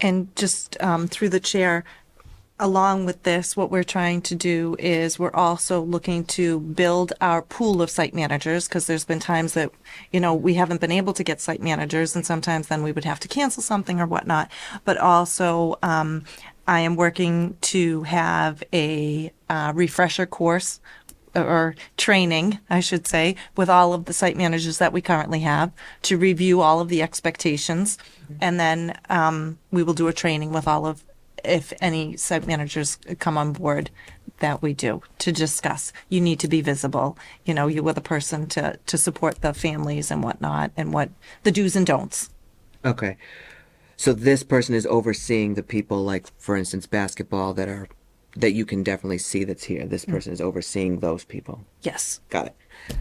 And just um, through the chair, along with this, what we're trying to do is we're also looking to build our pool of site managers because there's been times that, you know, we haven't been able to get site managers and sometimes then we would have to cancel something or whatnot. But also, um, I am working to have a uh, refresher course or training, I should say, with all of the site managers that we currently have to review all of the expectations. Mm-hmm. And then um, we will do a training with all of, if any site managers come on board, that we do to discuss. You need to be visible. You know, you were the person to, to support the families and whatnot and what the do's and don'ts. Okay. So this person is overseeing the people, like for instance, basketball that are that you can definitely see that's here. This Mm. person is overseeing those people. Yes. Got it.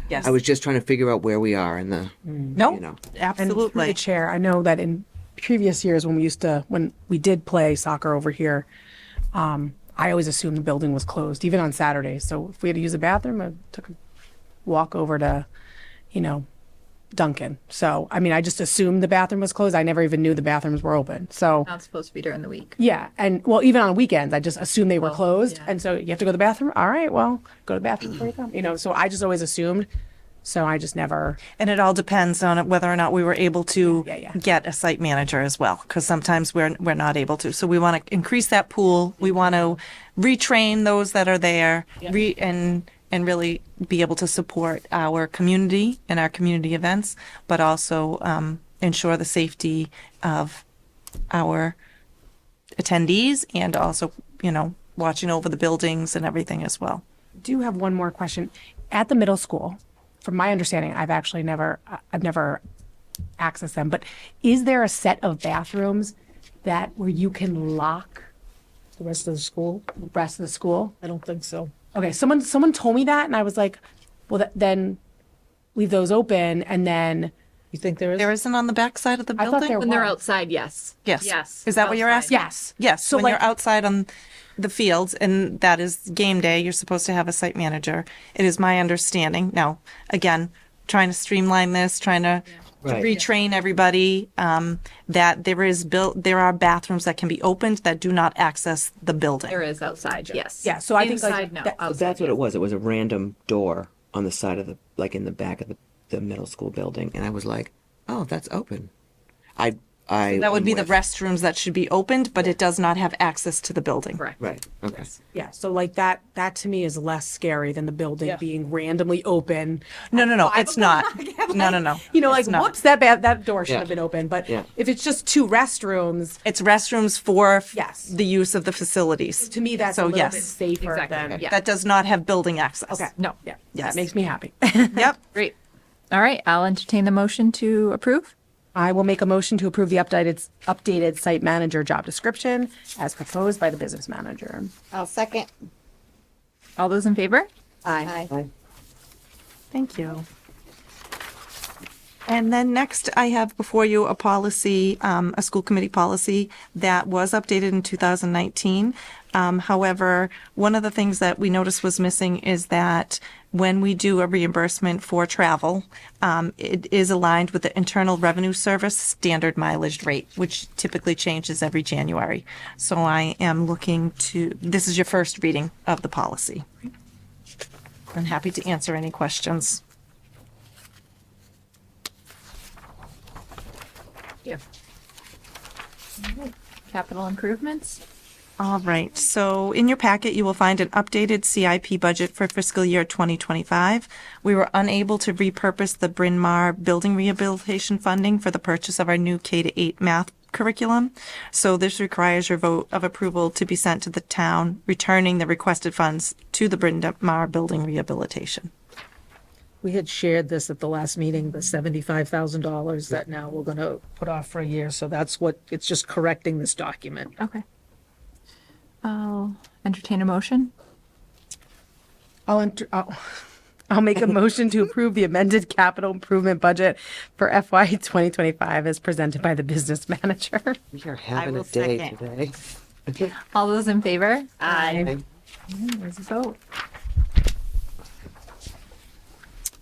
Yes. Mm. I was just trying to figure out where we are in the. no, you know. And through the absolutely. chair, I know that in previous years when we used to, when we did play soccer over here, um, I always assumed the building was closed, even on Saturdays. So if we had to use a bathroom, I took a walk over to, you know, Duncan. So I mean, I just assumed the bathroom was closed. I never even knew the bathrooms were open. So Not supposed to be during the week. yeah, and well, even on weekends, I just assumed they were closed. yeah. And so you have to go to the bathroom. All right, well, go to the bathroom before you come. You know, so I just always assumed. So I just never. And it all depends on whether or not we were able to Yeah, yeah. get a site manager as well, because sometimes we're, we're not able to. So we want to increase that pool. We want to retrain those that are there re, and, and really be able to support our community and our community events, but also, um, ensure the safety of our attendees and also, you know, watching over the buildings and everything as well. do have one more question. At the middle school, from my understanding, I've actually never, I- I've never accessed them, but is there a set of bathrooms that where you can lock the rest of the school? the rest of the school? I don't think so. Okay, someone, someone told me that and I was like, well, th- then leave those open and then, You think there is? There isn't on the backside of the I building? thought there When they're Why? outside, yes. Yes. Yes. Is that what you're outside. asking? yes. Yes, So when like, you're outside on the fields, and that is game day, you're supposed to have a site manager. It is my understanding. Now, again, trying to streamline this, trying to to Right. retrain everybody, um, that there is built, there are bathrooms that can be opened that do not access the building. There is outside, yes. Yeah, so I think, like, Inside, no, that- outside. That's what it was. It was a random door on the side of the, like in the back of the, the middle school building, and I was like, oh, that's open. I I. That would I'm be the with- restrooms that should be opened, but it does not have access to the building. Correct. Right. Okay. yeah, so like that, that to me is less scary than the building being randomly open. No, no, no, it's not. No, no, no. You know, It's like, not. whoops, that, ba- that door should Yeah. have been open, but Yeah. if it's just two restrooms, It's restrooms for f- Yes. the use of the facilities. to me, that's So, a little bit yes. safer Exactly. than. Yeah. That does not have building access. Okay. No. Yeah. Yes. That makes me happy. Yep. Great. All right, I'll entertain the motion to approve. I will make a motion to approve the updated, updated site manager job description as proposed by the business manager. I'll second. All those in favor? Aye. Thank you. And then next, I have before you a policy, um, a school committee policy that was updated in 2019. Um, however, one of the things that we noticed was missing is that when we do a reimbursement for travel, um, it is aligned with the Internal Revenue Service standard mileage rate, which typically changes every January. So I am looking to, this is your first reading of the policy. I'm happy to answer any questions. Yeah. Capital improvements? All right, so in your packet, you will find an updated CIP budget for fiscal year 2025. We were unable to repurpose the Bryn Mawr Building Rehabilitation Funding for the purchase of our new K to 8 math curriculum. So this requires your vote of approval to be sent to the town, returning the requested funds to the Bryn Mawr Building Rehabilitation. We had shared this at the last meeting, the seventy-five thousand dollars that now we're gonna put off for a year, so that's what, it's just correcting this document. Okay. I'll entertain a motion. I'll, enter- I'll, I'll make a motion to approve the amended capital improvement budget for FY 2025 as presented by the business manager. We are having a will day second. today. All those in favor? Aye. There's a vote.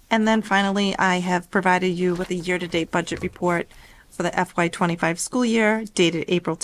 And then finally, I have provided you with a year-to-date budget report for the FY25 school year dated April